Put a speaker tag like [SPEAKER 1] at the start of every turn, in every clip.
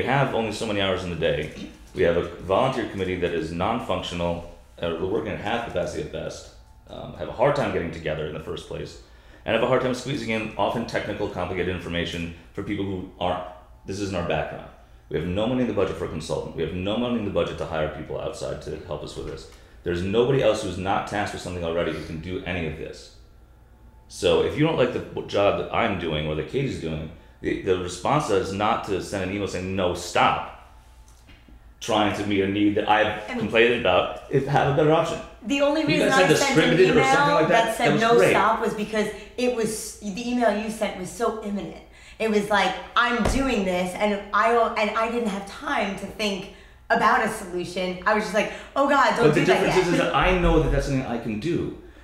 [SPEAKER 1] We have only so many hours in the day. We have a volunteer committee that is non-functional. Uh, we're working at half capacity at best. Um, have a hard time getting together in the first place, and have a hard time squeezing in often technical, complicated information for people who aren't. This isn't our background. We have no money in the budget for a consultant. We have no money in the budget to hire people outside to help us with this. There's nobody else who's not tasked with something already who can do any of this. So if you don't like the job that I'm doing or that Katie's doing, the, the response is not to send an email saying no, stop. Trying to meet a need that I've
[SPEAKER 2] And-
[SPEAKER 1] complained about, if have a better option.
[SPEAKER 2] The only
[SPEAKER 1] You
[SPEAKER 2] reason
[SPEAKER 1] guys had
[SPEAKER 2] I
[SPEAKER 1] the
[SPEAKER 2] sent an
[SPEAKER 1] scripted or
[SPEAKER 2] email
[SPEAKER 1] something like
[SPEAKER 2] that,
[SPEAKER 1] that? That
[SPEAKER 2] said
[SPEAKER 1] was
[SPEAKER 2] no
[SPEAKER 1] great.
[SPEAKER 2] stop was because it was the email you sent was so imminent. It was like I'm doing this, and I don't- and I didn't have time to think about a solution. I was just like, oh god, don't
[SPEAKER 1] But the
[SPEAKER 2] do that
[SPEAKER 1] difference
[SPEAKER 2] yet.
[SPEAKER 1] is, is that I know that that's something I can do.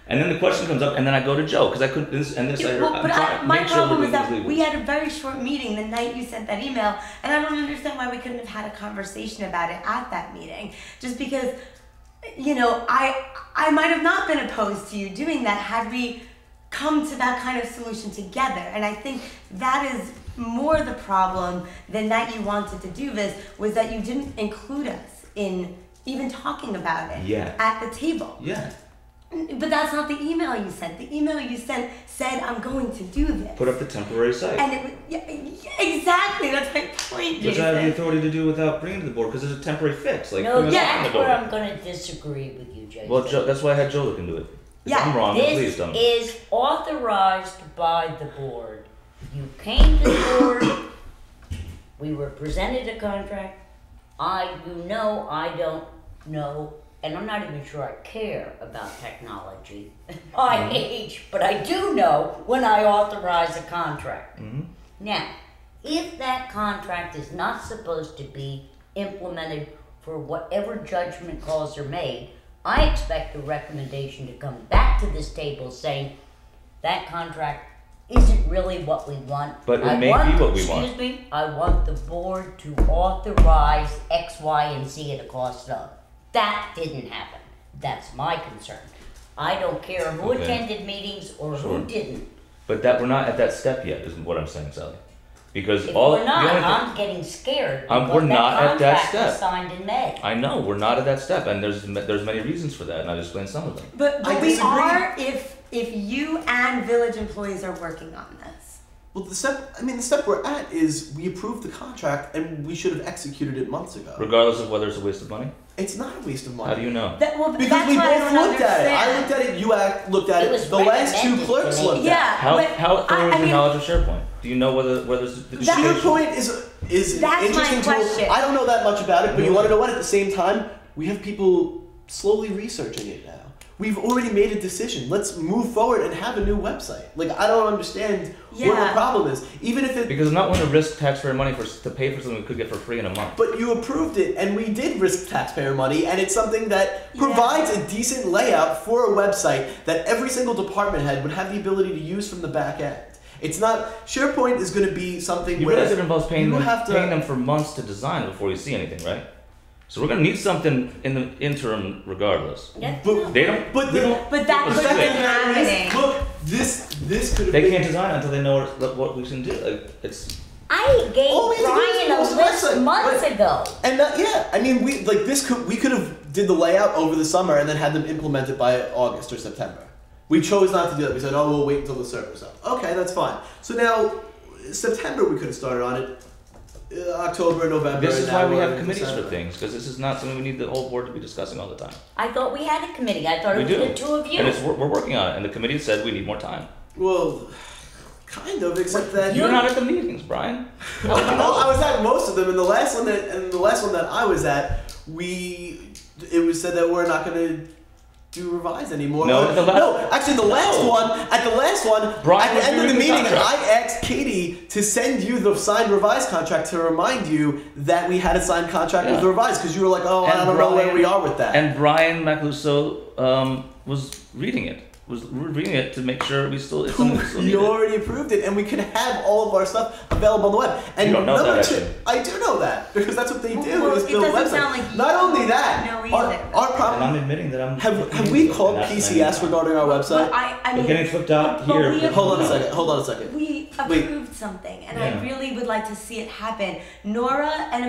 [SPEAKER 1] And then the question comes up, and then I go to Joe because I could this and this.
[SPEAKER 2] Yeah,
[SPEAKER 1] I heard,
[SPEAKER 2] well,
[SPEAKER 1] I'm
[SPEAKER 2] but
[SPEAKER 1] trying
[SPEAKER 2] I,
[SPEAKER 1] to
[SPEAKER 2] my
[SPEAKER 1] make sure
[SPEAKER 2] problem
[SPEAKER 1] we're
[SPEAKER 2] is
[SPEAKER 1] doing
[SPEAKER 2] that
[SPEAKER 1] these legals.
[SPEAKER 2] we had a very short meeting the night you sent that email, and I don't understand why we couldn't have had a conversation about it at that meeting. Just because, you know, I I might have not been opposed to you doing that had we come to that kind of solution together. And I think that is more the problem than that you wanted to do this was that you didn't include us in even talking about it
[SPEAKER 1] Yeah.
[SPEAKER 2] at the table.
[SPEAKER 1] yeah.
[SPEAKER 2] But that's not the email you sent. The email you sent said, "I'm going to do this,"
[SPEAKER 1] Put up the temporary site,
[SPEAKER 2] and it was yeah, yeah, exactly. That's my point,
[SPEAKER 1] which I have the
[SPEAKER 2] Jason.
[SPEAKER 1] authority to do without bringing it to the board because it's a temporary fix. Like
[SPEAKER 3] No,
[SPEAKER 1] putting a sign on
[SPEAKER 3] that's
[SPEAKER 1] the
[SPEAKER 3] where
[SPEAKER 1] door.
[SPEAKER 3] I'm gonna disagree with you, Jason.
[SPEAKER 1] Well, Joe, that's why I had Joe look into it. If
[SPEAKER 2] Yeah,
[SPEAKER 1] I'm wrong, then please
[SPEAKER 3] This
[SPEAKER 1] tell me.
[SPEAKER 3] is authorized by the board. You came to the board, we were presented a contract. I, you know, I don't know, and I'm not even sure I care about technology. I
[SPEAKER 1] Mm-hmm.
[SPEAKER 3] age, but I do know when I authorize a contract. Now, if that contract is not supposed to be implemented for whatever judgment calls are made, I expect the recommendation to come back to this table saying that contract isn't really what we want.
[SPEAKER 1] But it
[SPEAKER 3] I
[SPEAKER 1] may
[SPEAKER 3] want-
[SPEAKER 1] be what we want."
[SPEAKER 3] Excuse me, I want the board to authorize X, Y, and Z at a cost of. That didn't happen. That's my concern. I don't care who
[SPEAKER 1] Okay.
[SPEAKER 3] attended meetings or
[SPEAKER 1] Sure.
[SPEAKER 3] who didn't.
[SPEAKER 1] But that we're not at that step yet, is what I'm saying, Sally. Because
[SPEAKER 3] If
[SPEAKER 1] all
[SPEAKER 3] we're not,
[SPEAKER 1] the only thing,
[SPEAKER 3] I'm getting scared.
[SPEAKER 1] Um,
[SPEAKER 3] because
[SPEAKER 1] we're not at that
[SPEAKER 3] contract was
[SPEAKER 1] step.
[SPEAKER 3] Signed in May.
[SPEAKER 1] I know we're not at that step, and there's there's many reasons for that, and I've explained some of them.
[SPEAKER 2] But,
[SPEAKER 4] I
[SPEAKER 2] but we
[SPEAKER 4] disagree.
[SPEAKER 2] are if if you and village employees are working on this.
[SPEAKER 4] Well, the step, I mean, the step we're at is we approved the contract and we should have executed it months ago.
[SPEAKER 1] Regardless of whether it's a waste of money,
[SPEAKER 4] It's not a waste of money.
[SPEAKER 1] how do you know?
[SPEAKER 2] That well,
[SPEAKER 4] because
[SPEAKER 2] that's
[SPEAKER 4] we
[SPEAKER 2] why I
[SPEAKER 4] both
[SPEAKER 2] don't
[SPEAKER 4] looked at
[SPEAKER 2] understand.
[SPEAKER 4] it. I looked at it, you act, looked at
[SPEAKER 3] It
[SPEAKER 4] it,
[SPEAKER 3] was
[SPEAKER 4] the last two
[SPEAKER 3] recommended to
[SPEAKER 4] clerks
[SPEAKER 3] me.
[SPEAKER 4] looked at
[SPEAKER 2] Yeah,
[SPEAKER 1] How
[SPEAKER 2] but
[SPEAKER 1] how thorough
[SPEAKER 2] I,
[SPEAKER 1] is
[SPEAKER 2] I
[SPEAKER 1] your
[SPEAKER 2] mean,
[SPEAKER 1] knowledge of SharePoint? Do you know whether whether it's the
[SPEAKER 4] it.
[SPEAKER 2] That-
[SPEAKER 4] SharePoint is, is an
[SPEAKER 2] That's my
[SPEAKER 4] interesting tool.
[SPEAKER 2] question.
[SPEAKER 4] I don't know that much about it, but you
[SPEAKER 1] Really?
[SPEAKER 4] want to know what? At the same time, we have people slowly researching it now. We've already made a decision. Let's move forward and have a new website. Like, I don't understand what the
[SPEAKER 2] Yeah.
[SPEAKER 4] problem is. Even if it
[SPEAKER 1] Because I'm not one to risk taxpayer money for to pay for something we could get for free in a month.
[SPEAKER 4] But you approved it, and we did risk taxpayer money, and it's something that
[SPEAKER 2] Yeah.
[SPEAKER 4] provides a decent layout for a website that every single department head would have the ability to use from the back end. It's not SharePoint is going to be something
[SPEAKER 1] You
[SPEAKER 4] where
[SPEAKER 1] realize it involves paying
[SPEAKER 4] you
[SPEAKER 1] them,
[SPEAKER 4] have to
[SPEAKER 1] paying them for months to design before you see anything, right? So we're gonna need something in the interim, regardless.
[SPEAKER 3] That's
[SPEAKER 4] But-
[SPEAKER 3] not-
[SPEAKER 1] They don't.
[SPEAKER 4] But
[SPEAKER 1] they
[SPEAKER 4] the-
[SPEAKER 1] don't.
[SPEAKER 2] but that
[SPEAKER 4] The
[SPEAKER 1] Let's
[SPEAKER 2] could have
[SPEAKER 4] fact
[SPEAKER 1] do
[SPEAKER 4] of
[SPEAKER 1] it.
[SPEAKER 2] been
[SPEAKER 4] the matter is,
[SPEAKER 2] happening.
[SPEAKER 4] Look, this this could have
[SPEAKER 1] They
[SPEAKER 4] been.
[SPEAKER 1] can't design until they know what, what we can do. Like it's.
[SPEAKER 3] I gave
[SPEAKER 4] All we had to do was
[SPEAKER 3] Brian a
[SPEAKER 4] post the
[SPEAKER 3] list
[SPEAKER 4] website,
[SPEAKER 3] months
[SPEAKER 4] but-
[SPEAKER 3] ago.
[SPEAKER 4] And that, yeah, I mean, we like this could we could have did the layout over the summer and then had them implemented by August or September. We chose not to do that. We said, oh, we'll wait until the server's up. Okay, that's fine. So now September we could have started on it. Uh, October, November.
[SPEAKER 1] This
[SPEAKER 4] and
[SPEAKER 1] is
[SPEAKER 4] now
[SPEAKER 1] why we
[SPEAKER 4] we're
[SPEAKER 1] have
[SPEAKER 4] in
[SPEAKER 1] committees for
[SPEAKER 4] December.
[SPEAKER 1] things because this is not something we need the whole board to be discussing all the time.
[SPEAKER 3] I thought we had a committee. I thought
[SPEAKER 1] We
[SPEAKER 3] it
[SPEAKER 1] do.
[SPEAKER 3] was the two of you.
[SPEAKER 1] And it's we're, we're working on it. And the committee said we need more time.
[SPEAKER 4] Well, kind of, except that
[SPEAKER 1] You're not at the meetings, Brian.
[SPEAKER 4] Well, I was at most of them, and the last one that and the last one that I was at, we it was said that we're not gonna do revise anymore.
[SPEAKER 1] No,
[SPEAKER 4] Or-
[SPEAKER 1] the last-
[SPEAKER 4] no, actually, the last
[SPEAKER 1] No.
[SPEAKER 4] one at the last one
[SPEAKER 1] Brian
[SPEAKER 4] at
[SPEAKER 1] was
[SPEAKER 4] the end of
[SPEAKER 1] reading
[SPEAKER 4] the
[SPEAKER 1] the
[SPEAKER 4] meeting,
[SPEAKER 1] contract.
[SPEAKER 4] I asked Katie to send you the signed revised contract to remind you that we had a signed contract with
[SPEAKER 1] Yeah.
[SPEAKER 4] the revised because you were like, oh, I
[SPEAKER 1] And
[SPEAKER 4] don't know where
[SPEAKER 1] Brian-
[SPEAKER 4] we are with that.
[SPEAKER 1] And Brian Macaluso um, was reading it. Was re- reading it to make sure we still. It's something we still
[SPEAKER 4] you
[SPEAKER 1] needed.
[SPEAKER 4] already approved it, and we could have all of our stuff available on the web. And
[SPEAKER 1] You don't know
[SPEAKER 4] number
[SPEAKER 1] that,
[SPEAKER 4] two,
[SPEAKER 1] actually.
[SPEAKER 4] I do know that because that's what they
[SPEAKER 2] Well,
[SPEAKER 4] do.
[SPEAKER 2] well,
[SPEAKER 4] is
[SPEAKER 2] it
[SPEAKER 4] build
[SPEAKER 2] doesn't
[SPEAKER 4] websites.
[SPEAKER 2] sound like you
[SPEAKER 4] Not only that,
[SPEAKER 2] know
[SPEAKER 4] our,
[SPEAKER 2] either.
[SPEAKER 4] our
[SPEAKER 1] And
[SPEAKER 4] problem.
[SPEAKER 1] I'm admitting that I'm.
[SPEAKER 4] Have, have we called PCS regarding our
[SPEAKER 2] But
[SPEAKER 4] website?
[SPEAKER 2] I, I
[SPEAKER 1] We're
[SPEAKER 2] mean,
[SPEAKER 1] getting flipped out
[SPEAKER 2] but
[SPEAKER 1] here.
[SPEAKER 2] we have-
[SPEAKER 4] Hold on a second. Hold on a second.
[SPEAKER 2] We
[SPEAKER 4] Wait.
[SPEAKER 2] approved something, and
[SPEAKER 1] Yeah.
[SPEAKER 2] I really would like to see it happen. Nora and